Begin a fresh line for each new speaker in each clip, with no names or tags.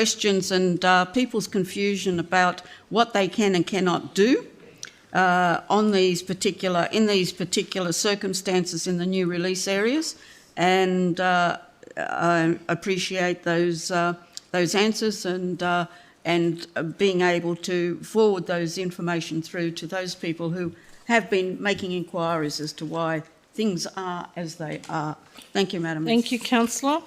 questions and uh, people's confusion about what they can and cannot do uh, on these particular, in these particular circumstances in the new release areas. And uh, I appreciate those, uh, those answers and, uh, and being able to forward those information through to those people who have been making inquiries as to why things are as they are. Thank you, Madam.
Thank you, councillor.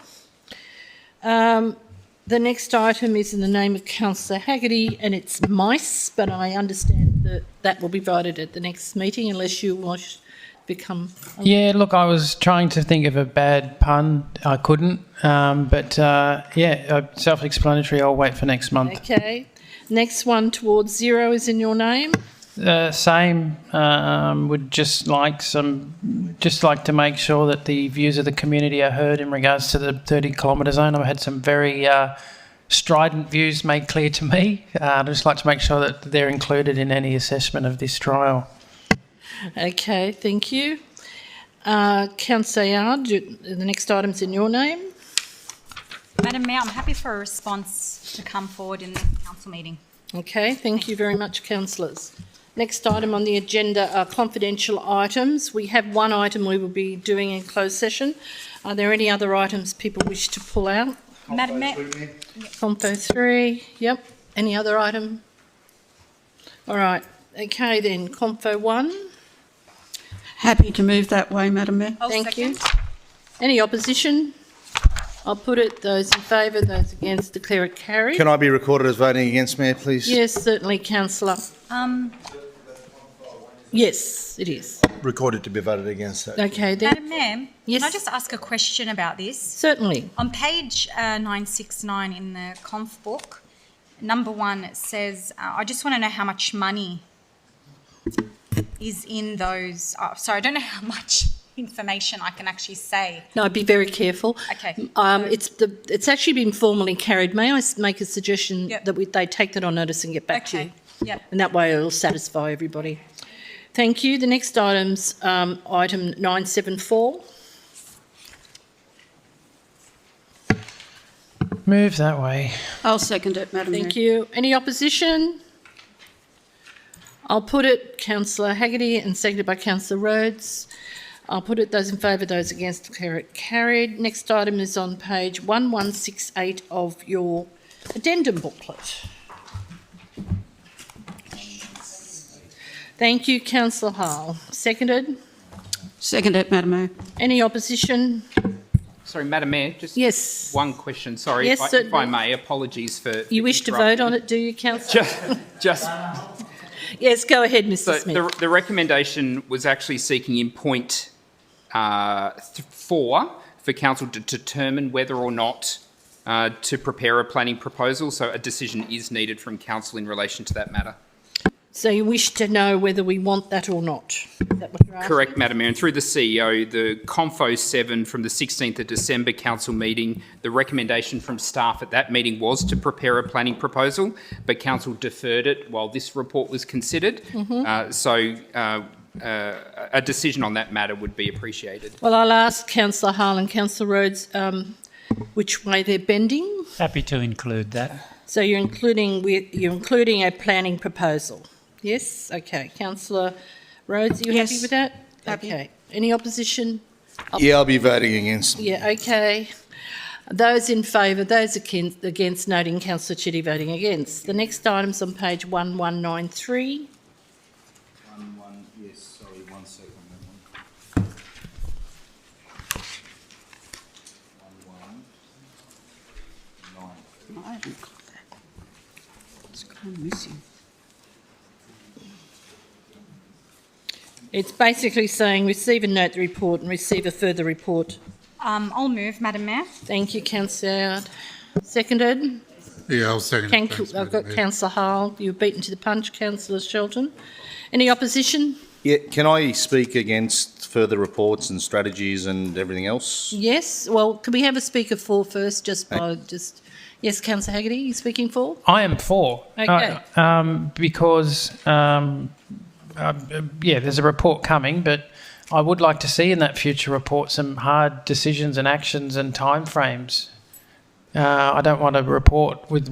Um, the next item is in the name of councillor Haggerty and it's mice, but I understand that that will be voted at the next meeting unless you wish to become.
Yeah, look, I was trying to think of a bad pun. I couldn't. Um, but uh, yeah, uh, self explanatory. I'll wait for next month.
Okay. Next one towards zero is in your name.
Uh, same, um, would just like some, just like to make sure that the views of the community are heard in regards to the 30 kilometre zone. I've had some very uh, strident views made clear to me. Uh, I'd just like to make sure that they're included in any assessment of this trial.
Okay, thank you. Uh, councillor Yard, you- the next item's in your name.
Madam Mayor, I'm happy for a response to come forward in the council meeting.
Okay, thank you very much, councillors. Next item on the agenda are confidential items. We have one item we will be doing in closed session. Are there any other items people wish to pull out?
Madam Mayor,
Compo three, yep. Any other item? All right, okay then, Compo one,
Happy to move that way, Madam Mayor.
I'll
thank you.
second.
Any opposition? I'll put it, those in favour, those against, declare it carried.
Can I be recorded as voting against, Mayor, please?
Yes, certainly, councillor.
Um,
Yes, it is.
Recorded to be voted against. that.
Okay then,
Madam Mayor,
Yes.
can I just ask a question about this?
certainly.
On page uh, 969 in the conf book, number one it says, uh, I just want to know how much money is in those. Oh, sorry, I don't know how much information I can actually say.
No, be very careful.
Okay.
Um, it's the, it's actually been formally carried. May I s- make a suggestion
Yep.
that we, they take that on notice and get back to you?
Okay. Yep.
And that way it'll satisfy everybody. Thank you. The next item's, um, item nine seven four.
Move that way.
I'll second it, Madam Mayor.
Thank you. Any opposition? I'll put it, councillor Haggerty and seconded by councillor Rhodes. I'll put it, those in favour, those against, declare it carried. Next item is on page one one six eight of your addendum booklet. Thank you, councillor Hall. Seconded.
Second it, Madam Mayor.
Any opposition?
Sorry, Madam Mayor, just
Yes.
one question. Sorry,
Yes,
if, I, if
certainly.
I may, apologies for.
You wish to vote on it, do you, councillor?
Just, just
Yes, go ahead, Mr
so
Smith.
the, the recommendation was actually seeking in point uh, th- four for council to determine whether or not uh, to prepare a planning proposal. So a decision is needed from council in relation to that matter.
So you wish to know whether we want that or not? Is that what you're asking?
Correct, Madam Mayor. And through the CEO, the Confo 7 from the 16th of December council meeting, the recommendation from staff at that meeting was to prepare a planning proposal, but council deferred it while this report was considered. Uh, So uh, uh, a decision on that matter would be appreciated.
Well, I'll ask councillor Hall and councillor Rhodes um, which way they're bending.
Happy to include that.
So you're including, we- you're including a planning proposal? Yes, okay. Councillor Rhodes, are you happy
Yes,
with that?
happy.
Okay. Any opposition?
Yeah, I'll be voting against.
Yeah, okay. Those in favour, those akin- against, noting councillor Chitty voting against. The next item's on page 1193.
One, one, yes, sorry, one second. that one. One, one, nine.
I haven't got that. It's kind of missing.
It's basically saying receive and note the report and receive a further report
Um, I'll move, Madam Mayor.
Thank you, councillor. Seconded.
Yeah, I'll second it.
Thank
Thanks,
I've
Madam
got
Mayor.
councillor Hall. You were beaten to the punch, councillor Shelton. Any opposition?
Yeah, can I speak against further reports and strategies and everything else?
Yes. Well, can we have a speaker for first, just by, just, yes, councillor Haggerty, you speaking for?
I am for.
Okay.
Uh, um, because, um, uh, yeah, there's a report coming, but I would like to see in that future report some hard decisions and actions and timeframes Uh, I don't want a report with